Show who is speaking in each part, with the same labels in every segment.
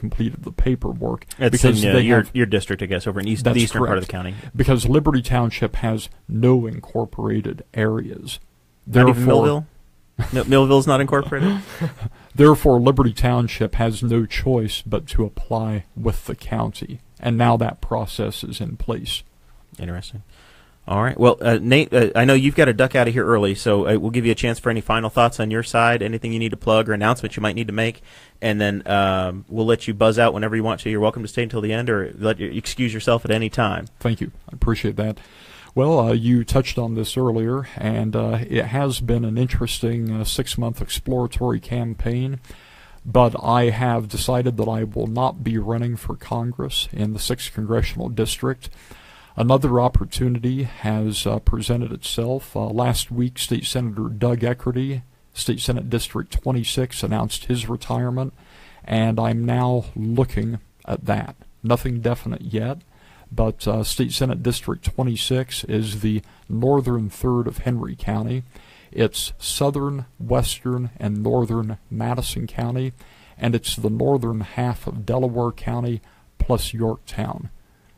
Speaker 1: completed the paperwork
Speaker 2: It's
Speaker 1: because
Speaker 2: in uh,
Speaker 1: they
Speaker 2: your,
Speaker 1: have,
Speaker 2: your district, I guess, over in east, the
Speaker 1: That's
Speaker 2: eastern part
Speaker 1: correct.
Speaker 2: of the county.
Speaker 1: because Liberty Township has no incorporated areas.
Speaker 2: Not even Millville? No, Millville's not incorporated?
Speaker 1: Therefore, Liberty Township has no choice but to apply with the county, and now that process is in place.
Speaker 2: Interesting. All right. Well, uh, Nate, uh, I know you've got to duck out of here early, so uh, we'll give you a chance for any final thoughts on your side, anything you need to plug or announcements you might need to make, and then um, we'll let you buzz out whenever you want to. You're welcome to stay until the end or let you excuse yourself at any time.
Speaker 1: Thank you. I appreciate that. Well, uh, you touched on this earlier, and uh, it has been an interesting uh, six month exploratory campaign. But I have decided that I will not be running for Congress in the 6th Congressional District. Another opportunity has uh, presented itself. Uh, last week, State Senator Doug Eckerty, State Senate District 26, announced his retirement, and I'm now looking at that. Nothing definite yet, but uh, State Senate District 26 is the northern third of Henry County. It's southern, western, and northern Madison County, and it's the northern half of Delaware County plus Yorktown.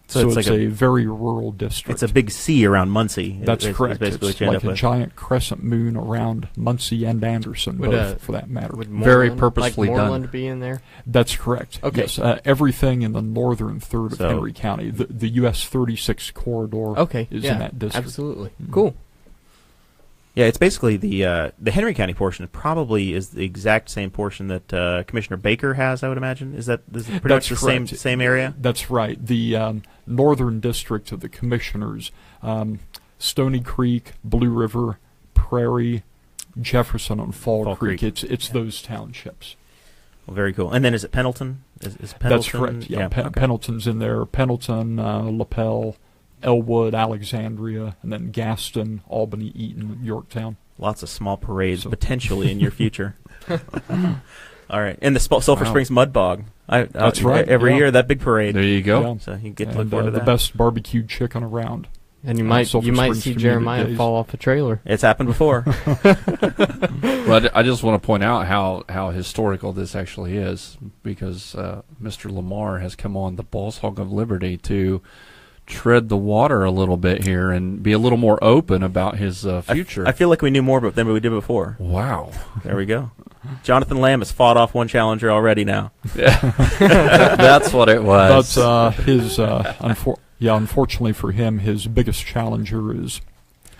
Speaker 2: So
Speaker 1: So,
Speaker 2: it's
Speaker 1: it's,
Speaker 2: like
Speaker 1: a, very rural district.
Speaker 2: It's a big C around Muncie.
Speaker 1: That's
Speaker 2: is- is
Speaker 1: correct.
Speaker 2: basically
Speaker 1: It's
Speaker 2: what you end
Speaker 1: like
Speaker 2: up
Speaker 1: a
Speaker 2: with.
Speaker 1: giant crescent moon around Muncie and Anderson,
Speaker 3: Would,
Speaker 1: both,
Speaker 3: uh,
Speaker 1: for that matter.
Speaker 3: Would
Speaker 4: Very
Speaker 3: Moreland-
Speaker 4: purposefully
Speaker 3: like
Speaker 4: done.
Speaker 3: Moreland be in there?
Speaker 1: That's correct.
Speaker 3: Okay.
Speaker 1: Yes, uh, everything in the northern third
Speaker 2: So-
Speaker 1: of Henry County, the, the U.S. 36 corridor,
Speaker 3: Okay,
Speaker 1: is
Speaker 3: yeah,
Speaker 1: in that district.
Speaker 3: absolutely.
Speaker 1: Mhm.
Speaker 3: Cool.
Speaker 2: Yeah, it's basically the uh, the Henry County portion is probably is the exact same portion that uh, Commissioner Baker has. I would imagine is that is it pretty
Speaker 1: That's
Speaker 2: much the same
Speaker 1: correct.
Speaker 2: same area.
Speaker 1: That's right. The um, northern district of the commissioners, um, Stony Creek, Blue River, Prairie, Jefferson, and Fall,
Speaker 2: Fall Creek.
Speaker 1: It's it's those townships.
Speaker 2: Well, very cool. And then is it Pendleton? Is, is Pendleton?
Speaker 1: That's correct. Yeah, Pe-
Speaker 2: okay.
Speaker 1: Pendleton's in there. Pendleton, uh, Lapel, Elwood, Alexandria, and then Gaston, Albany, Eaton, Yorktown.
Speaker 2: Lots of small parades
Speaker 1: So-
Speaker 2: potentially in your future. All right, and the Sp- Sulphur
Speaker 4: Wow.
Speaker 2: Springs Mud Bog. I, I-
Speaker 1: That's right,
Speaker 2: Every
Speaker 1: yeah.
Speaker 2: year that big parade.
Speaker 4: There you go.
Speaker 1: Yeah.
Speaker 2: So you get to look
Speaker 1: and,
Speaker 2: forward
Speaker 1: uh,
Speaker 2: to
Speaker 1: the
Speaker 2: that.
Speaker 1: best barbecued chicken around.
Speaker 3: And you
Speaker 1: Uh,
Speaker 3: might
Speaker 1: Sulphur
Speaker 3: you might
Speaker 1: Springs
Speaker 3: see
Speaker 1: Community
Speaker 3: Jeremiah
Speaker 1: Days.
Speaker 3: fall off a trailer.
Speaker 2: It's happened before.
Speaker 4: Well, I d- I just want to point out how, how historical this actually is because uh, Mr. Lamar has come on the Boss Hog of Liberty to tread the water a little bit here and be a little more open about his uh,
Speaker 2: I-
Speaker 4: future.
Speaker 2: I, feel like we knew more about than we did before.
Speaker 4: wow.
Speaker 2: There we go. Jonathan Lamb has fought off one challenger already now.
Speaker 4: That's what it was.
Speaker 1: But uh, his, uh, unfor- yeah, unfortunately for him, his biggest challenger is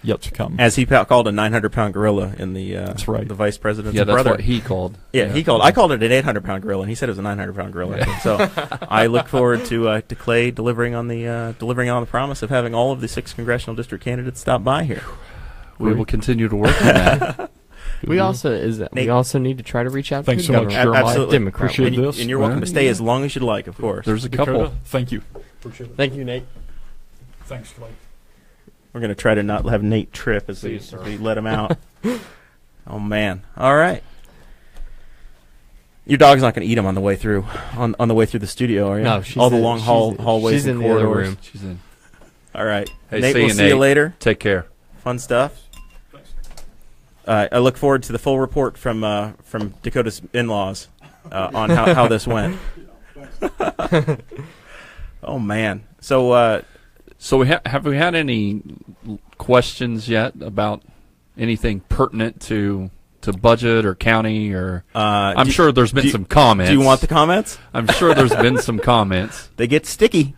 Speaker 1: yet to come.
Speaker 2: As he pa- called a 900 pound gorilla in the uh,
Speaker 1: That's right.
Speaker 2: the vice president's
Speaker 4: yeah, that's
Speaker 2: brother.
Speaker 4: what he called.
Speaker 2: yeah, he called. I called it an 800 pound gorilla, and he said it was a 900 pound gorilla. So I look forward to uh, to Clay delivering on the uh, delivering on the promise of having all of the six congressional district candidates stop by here.
Speaker 4: We will continue to work on that.
Speaker 3: We also is
Speaker 2: Nate.
Speaker 3: we also need to try to reach out
Speaker 1: Mm-hmm. Thanks so
Speaker 3: to the
Speaker 1: much,
Speaker 3: governor.
Speaker 1: Jeremiah.
Speaker 2: Absolutely.
Speaker 3: Democrat.
Speaker 1: Appreciate
Speaker 2: and, you-
Speaker 1: this.
Speaker 2: and you're welcome
Speaker 4: Well,
Speaker 2: to stay as long as you'd like, of course.
Speaker 4: There's a
Speaker 1: Dakota,
Speaker 4: couple.
Speaker 1: thank you. Appreciate it.
Speaker 3: Thank you, Nate.
Speaker 1: Thanks, Clay.
Speaker 2: We're gonna try to not have Nate trip as we,
Speaker 4: Please, sir.
Speaker 2: as we let him out. oh man! All right. Your dog's not gonna eat him on the way through on on the way through the studio, are you?
Speaker 3: No, she's
Speaker 2: all the
Speaker 3: in-
Speaker 2: long
Speaker 3: she's
Speaker 2: hall
Speaker 3: in-
Speaker 2: hallways
Speaker 3: she's
Speaker 2: and
Speaker 3: in the other
Speaker 2: corridors.
Speaker 3: room.
Speaker 4: She's in.
Speaker 2: All right,
Speaker 4: Hey,
Speaker 2: Nate.
Speaker 4: see
Speaker 2: we'll
Speaker 4: you,
Speaker 2: see you
Speaker 4: Nate.
Speaker 2: later.
Speaker 4: Take care.
Speaker 2: Fun stuff. Uh, I look forward to the full report from uh, from Dakota's in-laws uh, on how, how this went. oh man! So uh,
Speaker 4: So we ha- have we had any l- questions yet about anything pertinent to to budget or county or
Speaker 2: uh,
Speaker 4: I'm
Speaker 2: do-
Speaker 4: sure there's been
Speaker 2: do you-
Speaker 4: some comments.
Speaker 2: Do you want the comments?
Speaker 4: I'm sure there's been some comments.
Speaker 2: they get sticky.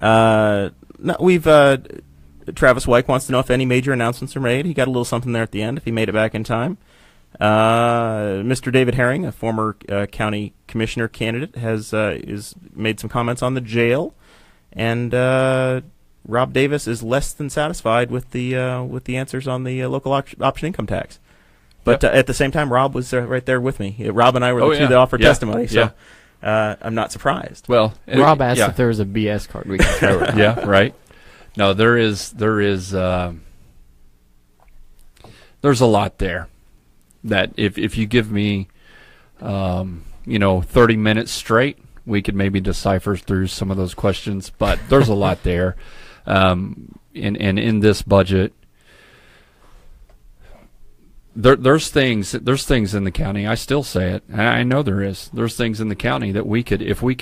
Speaker 2: Uh, no, we've uh, Travis Wyke wants to know if any major announcements are made. He got a little something there at the end if he made it back in time. Uh, Mr. David Herring, a former uh, county commissioner candidate, has uh, is made some comments on the jail, and uh, Rob Davis is less than satisfied with the uh, with the answers on the uh, local op- option income tax. But uh, at the same time, Rob was uh, right there with me. Uh, Rob and I were
Speaker 4: Oh,
Speaker 2: the two
Speaker 4: yeah.
Speaker 2: that offered
Speaker 4: Yeah.
Speaker 2: testimony, so uh, I'm not surprised.
Speaker 4: Well, it-
Speaker 3: Rob asked
Speaker 4: yeah.
Speaker 3: if there was a BS card we could throw around.
Speaker 4: yeah, right. No, there is there is um there's a lot there that if if you give me um, you know 30 minutes straight, we could maybe decipher through some of those questions. But there's a lot there, um, and and in this budget, there, there's things there's things in the county. I still say it. and I know there is. There's things in the county that we could, if we